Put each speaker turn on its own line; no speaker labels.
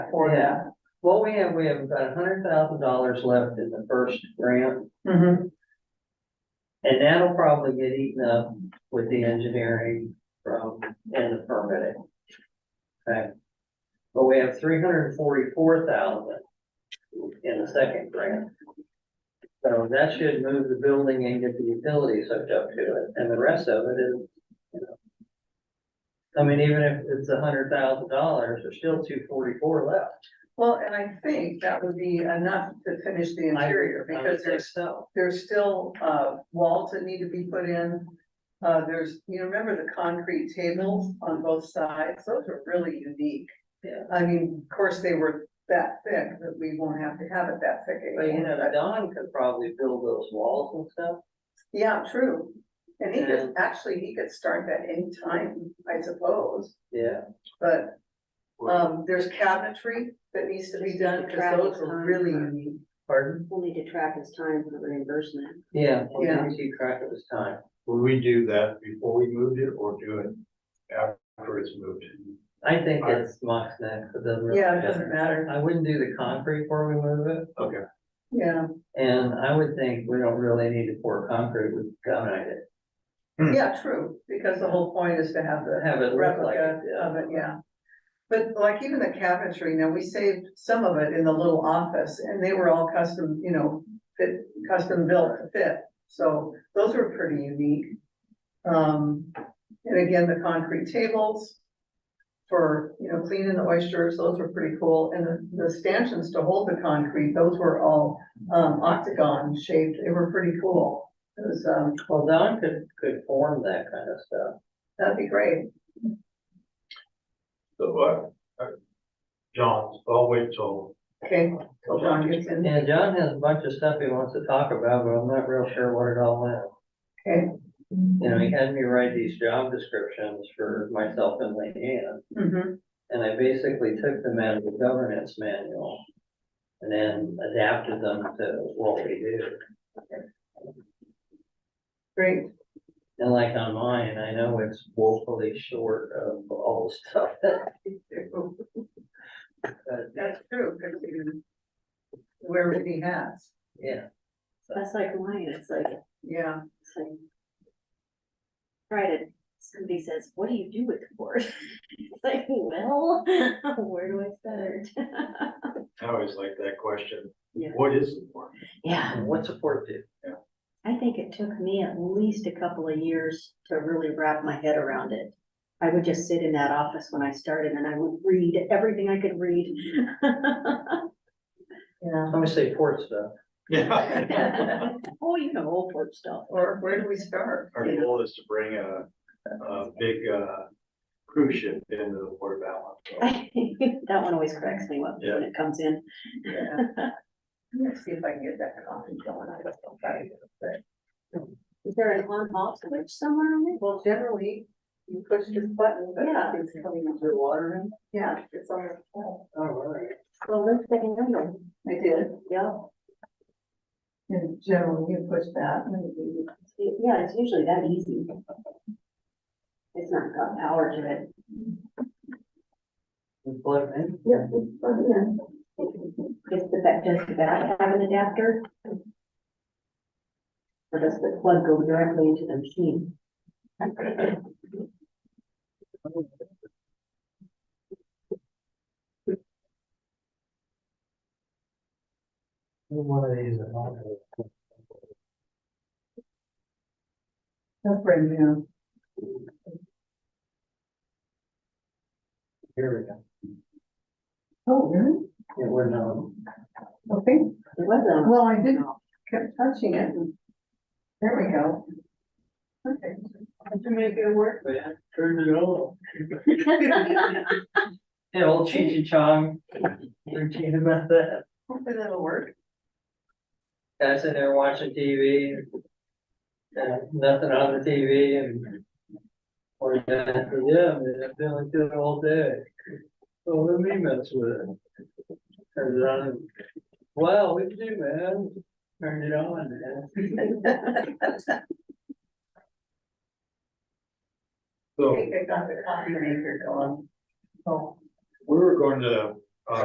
for them.
Yeah, what we have, we have about a hundred thousand dollars left in the first grant, Mm-hmm.
Mhm.
and that'll probably get eaten up with the engineering from, and the permitting. Okay, but we have three hundred and forty-four thousand in the second grant. So that should move the building and get the utilities hooked up to it, and the rest of it is, you know. I mean, even if it's a hundred thousand dollars, there's still two forty-four left.
Well, and I think that would be enough to finish the
I-
interior
I would
because
say
there's,
So,
there's still, uh, walls that need to be put in. Uh, there's, you remember the concrete tables on both sides? Those are really unique.
Yeah.
I mean, of course, they were that thick, but we won't have to have it that thick
but you
again.
know, Don could probably build those walls and stuff.
Yeah, true. And he
Yeah.
could, actually, he could start that anytime, I suppose,
Yeah.
but, um, there's cabinetry that needs to be done, because those are really unique.
Pardon?
We'll need to track his time for the reimbursement.
Yeah,
Yeah.
yeah, you crack it was time.
Would we do that before we moved it or do it after it's moved?
I think
Alright.
it's mock neck, it doesn't really
Yeah, it doesn't
matter.
matter,
I wouldn't do the concrete before we move it,
Okay,
yeah,
and I would think we don't really need to pour concrete, we dominate it.
yeah, true, because the whole point is to have the
Have it look like
replica
it, yeah.
of it, yeah. But like even the cabinetry, now we saved some of it in the little office, and they were all custom, you know, fit, custom built to fit, so those were pretty unique. Um, and again, the concrete tables for, you know, cleaning the oysters, those were pretty cool, and the, the stanchions to hold the concrete, those were all, um, octagon shaped, they were pretty cool. It was, um,
Well, Don could, could form that kind of stuff.
that'd be great,
so, uh, uh, John, I'll wait till.
okay, till John gets in.
And John has a bunch of stuff he wants to talk about, but I'm not real sure what it all is.
Okay.
You know, he had me write these job descriptions for myself and Leanne.
Mhm.
And I basically took them out of the governance manual and then adapted them to what we do.
Great,
And like on mine, I know it's woefully short of all the stuff that we do. But,
that's true, because you wear many hats,
yeah,
That's like mine, it's like,
yeah,
it's like. Right, and somebody says, what do you do with the board? It's like, well, where do I start?
I always like that question.
Yeah.
What is the board?
Yeah,
and what's a port do?
I think it took me at least a couple of years to really wrap my head around it. I would just sit in that office when I started and I would read everything I could read.
yeah.
I'm gonna say port stuff.
Yeah.
Oh, you know, old port stuff.
Or where do we start?
Our goal is to bring a, a big, uh, cruise ship into the Port of Allen.
That one always cracks me up when it comes in.
Yeah. Let's see if I can get that coffee going. I don't know if I can.
Is there an on-off switch somewhere on it?
Well, generally, you push this button, but
Yeah.
it's coming up.
Your water in?
Yeah, it's on the phone.
All right.
Well, let's take another.
I did.
Yeah,
And generally, you push that. and then you-
yeah, it's usually that easy. It's not got power to it.
And plug it in.
Yeah. Just the fact, does the back have an adapter? Or does the plug go directly into the machine?
One of these at home.
That's brand new.
Here we go.
Oh, really?
It wouldn't, um,
Okay,
It wasn't.
well, I did, kept touching it. and- There we go. Okay. Did you make it work?
but I turned it off. Yeah, old Cheech and Chong, they're cheating about that.
Hopefully that'll work.
guys in there watching TV. uh, nothing on the TV and. Or, yeah, yeah, I'm feeling good all day. So let me mess with it. Turns it on. and, Wow, what you do, man? Turned it on, man.
I
So
think I got the coffee maker going. Oh,
we were going to